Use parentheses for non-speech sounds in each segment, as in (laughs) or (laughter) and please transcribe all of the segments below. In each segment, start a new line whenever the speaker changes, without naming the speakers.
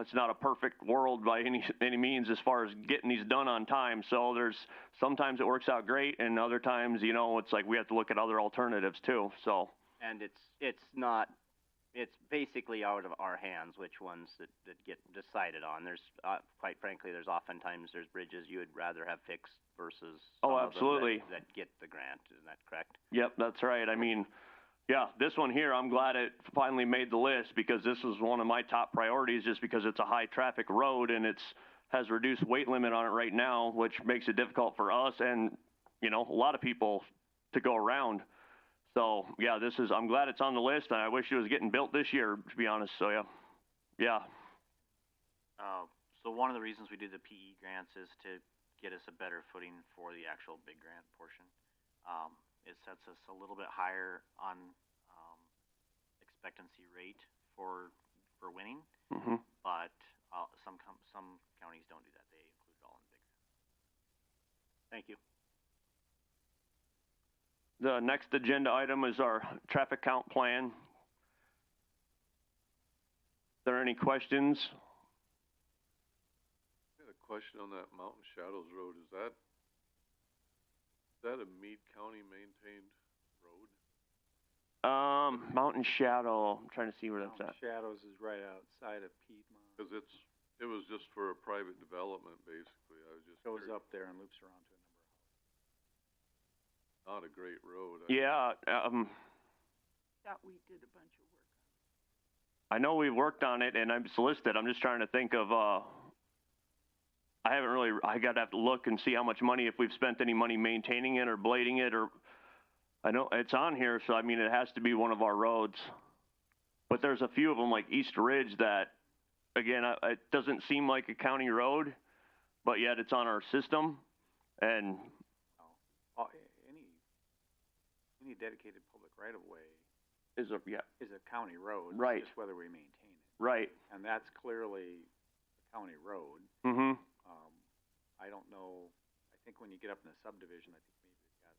it's not a perfect world by any (laughs) any means as far as getting these done on time. So there's sometimes it works out great, and other times, you know, it's like we have to look at other alternatives too. So
and it's it's not it's basically out of our hands which ones that, that get decided on there's uh, quite frankly there's oftentimes there's bridges you would rather have fixed versus some
Oh,
of them that-
absolutely.
that, get the grant isn't that correct
Yep, that's right. I mean, yeah, this one here, I'm glad it finally made the list because this was one of my top priorities just because it's a high traffic road and it's has reduced weight limit on it right now, which makes it difficult for us and, you know, a lot of people to go around. So, yeah, this is I'm glad it's on the list and I wish it was getting built this year to be honest. So, yeah. Yeah.
Uh, so one of the reasons we do the PE grants is to get us a better footing for the actual big grant portion. Um, it sets us a little bit higher on um, expectancy rate for for winning,
Mhm.
but uh, some com- some counties don't do that. They include it all in big. Thank you.
The next agenda item is our traffic count plan. Are there any questions?
I had a question on that Mountain Shadows Road, is that, is that a Meade County maintained road?
Um, Mountain Shadow. I'm trying to see where that's at.
Shadows is right outside of Piedmont,
Cause it's, it was just for a private development, basically, I was just
goes
curious,
up there and loops around to a number of
not a great road. I-
Yeah, um,
Thought we did a bunch of work.
I know we've worked on it and I'm solicited. I'm just trying to think of, uh, I haven't really, I gotta have to look and see how much money, if we've spent any money maintaining it or blading it or, I know it's on here, so I mean, it has to be one of our roads. But there's a few of them like East Ridge that, again, I, it doesn't seem like a county road, but yet it's on our system. And
all- any, any dedicated public right of way
is a, yeah,
is a county road. it's
Right.
Just whether we maintain it.
right.
And that's clearly a county road.
Mm-hmm.
Um, I don't know, I think when you get up in the subdivision, I think maybe they've got,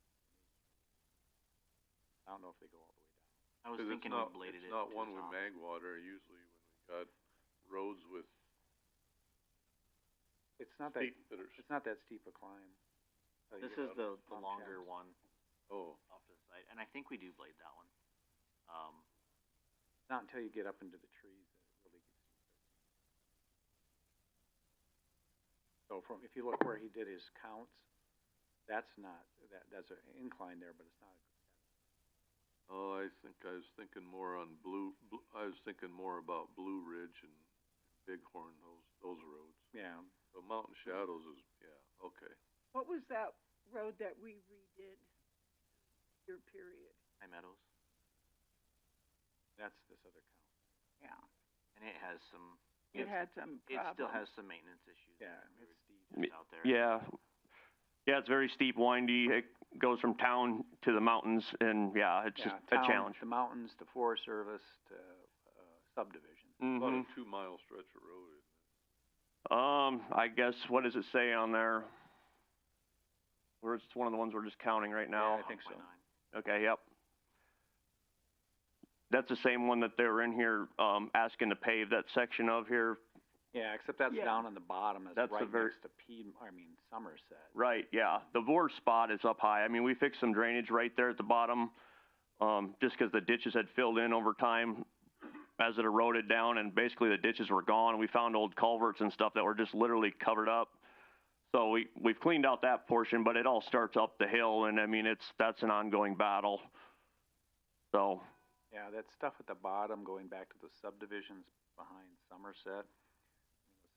I don't know if they go all the way down.
I was
'Cause it's
thinking
not-
we bladed it.
It's
to
not one
the
with
top.
Magwater, usually when we got roads with
It's not that,
steep that are,
it's not that steep a climb. So you
This is
get up
the
to
the
Mount
longer
Shadows.
one
oh,
off to the side, and I think we do blade that one. Um,
Not until you get up into the trees that it really gets. So from, if you look where he did his counts, that's not, that, that's an incline there, but it's not.
oh, I think I was thinking more on Blue, Blue- I was thinking more about Blue Ridge and Bighorn, those, those roads.
Yeah,
So Mountain Shadows is, yeah, okay.
What was that road that we redid? Your period?
High Meadows,
that's this other count.
Yeah.
and it has some.
It
it's-
had some
It
problem.
still has some maintenance issues.
Yeah,
We
it's
were
steep.
just out there.
Yeah. Yeah, it's very steep, windy. It goes from town to the mountains, and yeah, it's just
Yeah, town,
a challenge.
The mountains, the Forest Service, to, uh, subdivision.
About
hmm
a two-mile stretch of road, isn't it?
Um, I guess what does it say on there? Or it's one of the ones we're just counting right now.
I think so.
1.9.
Okay, yep. That's the same one that they were in here um, asking to pave that section of here.
Yeah, except that's
Yeah.
down on the bottom,
That's
that's
the
right
ver-
next to Pied, I mean Somerset.
Right, yeah. The worst spot is up high. I mean, we fixed some drainage right there at the bottom, um, just because the ditches had filled in over time as it eroded down, and basically the ditches were gone. We found old culverts and stuff that were just literally covered up. So we we've cleaned out that portion, but it all starts up the hill, and I mean it's that's an ongoing battle. So
Yeah, that stuff at the bottom, going back to the subdivisions behind Somerset.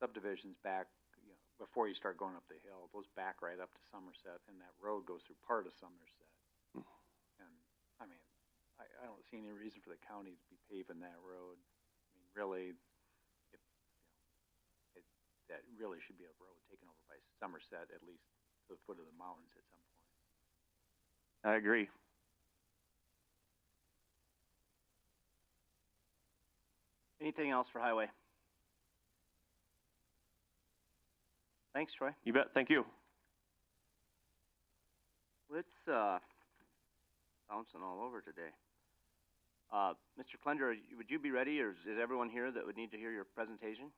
Subdivisions back, you know, before you start going up the hill, those back right up to Somerset, and that road goes through part of Somerset. And, I mean, I, I don't see any reason for the county to be paving that road. I mean, really, if, you know, it, that really should be a road taken over by Somerset, at least to the foot of the mountains at some point.
I agree.
Anything else for highway? Thanks, Troy.
You bet. Thank you.
Let's, uh, bouncing all over today. Uh, Mr. Clender, are you- would you be ready, or is is everyone here that would need to hear your presentation?